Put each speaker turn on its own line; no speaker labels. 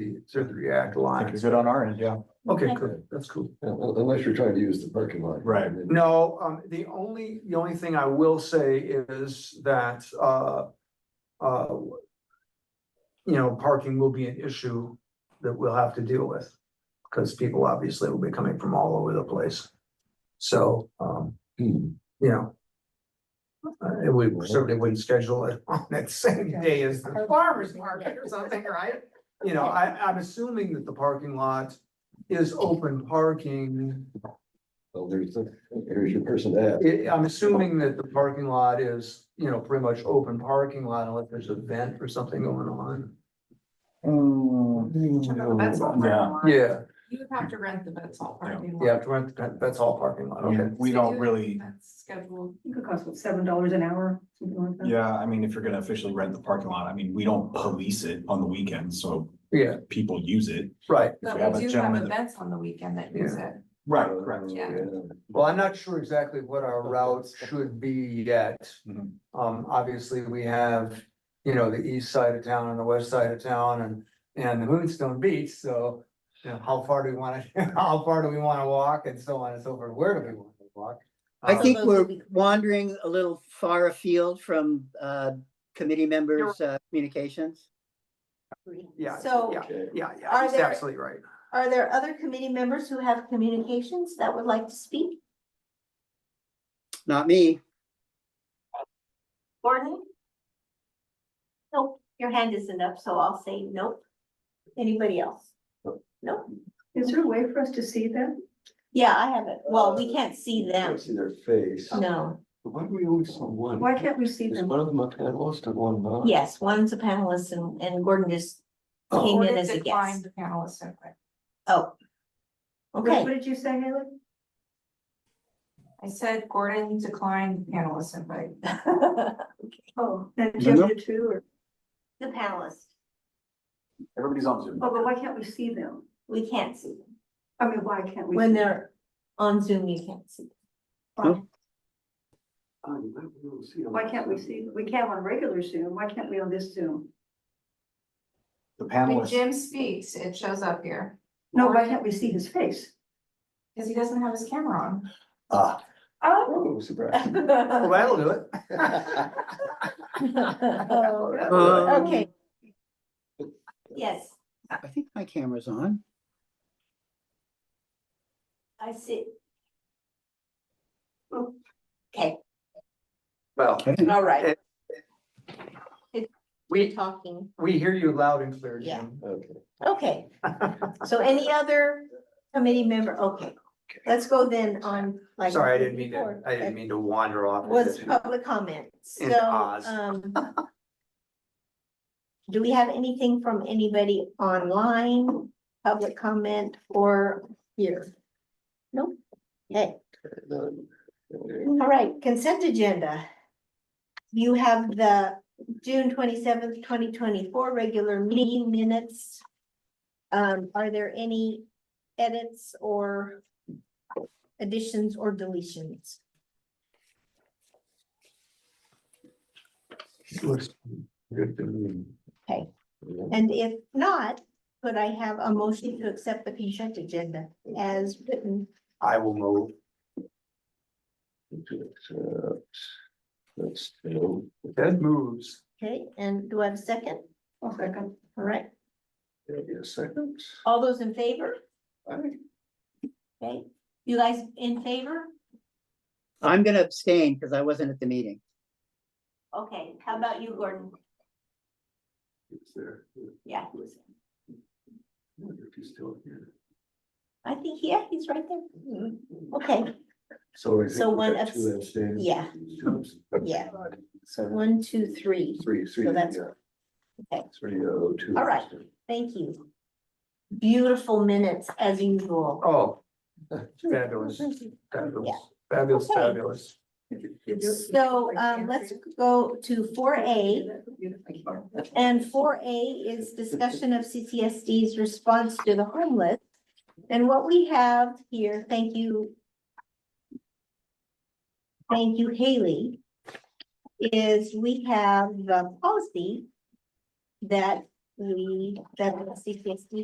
the Surgery Act line.
you're good on our end, yeah.
Okay, good, that's cool.
Unless you're trying to use the parking lot.
Right.
No, um, the only, the only thing I will say is that, uh, uh, you know, parking will be an issue that we'll have to deal with, because people obviously will be coming from all over the place. So, um,
Hmm.
you know, uh, we certainly wouldn't schedule it on that same day as the farmer's market or something, right? You know, I, I'm assuming that the parking lot is open parking.
Well, there's, the- here's your person at.
It, I'm assuming that the parking lot is, you know, pretty much open parking lot unless there's a vent or something going on.
That's all parking
Yeah.
lot.
Yeah,
You would have to rent the Vets Hall parking lot.
yeah, that- that- that's all parking lot, okay.
We don't really,
That's scheduled.
It could cost what, seven dollars an hour, something like that.
yeah, I mean, if you're gonna officially rent the parking lot, I mean, we don't police it on the weekends, so
Yeah,
people use it.
right.
If
But
we have a
we do have
gentleman that-
events on the weekend that use it.
Right,
yeah.
Well, I'm not sure exactly what our route should be yet.
Mhm.
Um, obviously, we have, you know, the east side of town and the west side of town and, and the Moonstone Beach, so. You know, how far do we wanna, how far do we wanna walk and so on and so forth, where do we wanna walk?
I
Um,
think
those
we're
will be-
wandering a little far afield from uh, committee members' uh, communications.
Yeah,
So
yeah, yeah, yeah,
Are
he's
there-
absolutely right.
are there other committee members who have communications that would like to speak?
Not me.
Gordon? Nope, your hand isn't up, so I'll say nope. Anybody else? Nope.
Is there a way for us to see that?
Yeah, I haven't. Well, we can't see them.
See their face.
No.
Why do we always on one?
Why can't we see
Is
them?
one of them a panelist and one not?
Yes, one's a panelist and, and Gordon just came in
Gordon
as a
declined
guest.
the panelist invite.
Oh.
What
Okay,
what did you say, Haley?
I said Gordon declined the panelist invite.
the
Oh, and Jim
No.
did too, or,
panelist,
Everybody's on Zoom.
oh, but why can't we see them?
we can't see them.
I mean, why can't we?
When
see
they're on Zoom, you can't see. them.
them?
Oh, you might be able to see them.
Why can't we see, we can on regular Zoom, why can't we on this Zoom?
The
When
panelists,
Jim speaks, it shows up here,
No, why can't we see his face?
because he doesn't have his camera on.
ah,
Oh.
Oh, surprise.
Well, that'll do it.
Um,
Okay. Yes,
I think my camera's on.
I see. Okay,
Well,
all
Eh.
right,
we,
talking.
we hear you loud and clear,
Yeah.
Jim.
Okay.
Okay, so any other committee member? Okay, let's go then on like.
Sorry, I didn't mean to, I didn't mean to wander off.
Was public comment,
In
so,
Oz.
um. Do we have anything from anybody online, public comment or here? Nope. Okay.
None. Okay.
all right, consent agenda. You have the June twenty-seventh, twenty twenty-four regular meeting minutes. Um, are there any edits or additions or deletions?
Looks Good to me.
Yeah.
And if not, could I have a motion to accept the consent agenda as written?
I will move.
To accept. That's still.
Ted moves.
Okay, and do I have a second?
One second.
All right,
There'll be a second.
all those in favor?
Aye.
Okay, you guys in favor?
I'm gonna abstain because I wasn't at the meeting.
Okay, how about you, Gordon?
It's there.
Yeah,
I wonder If he's still here.
I think, yeah, he's right there. Mm-hmm. Okay,
So. I think
So
we've
one
got
abs-
two abstains.
yeah.
Two abs-
Yeah. so one, two, three.
Three, three.
that's-
yeah.
okay.
Three oh two.
All right. Thank you. Beautiful minutes as usual.
Oh, fabulous, fabulous, fabulous,
Okay.
fabulous.
So um, let's go to four A. And four A is discussion of CCSD's response to the homeless. And what we have here, thank you. Thank you, Haley. Is we have the policy that we, the CCSD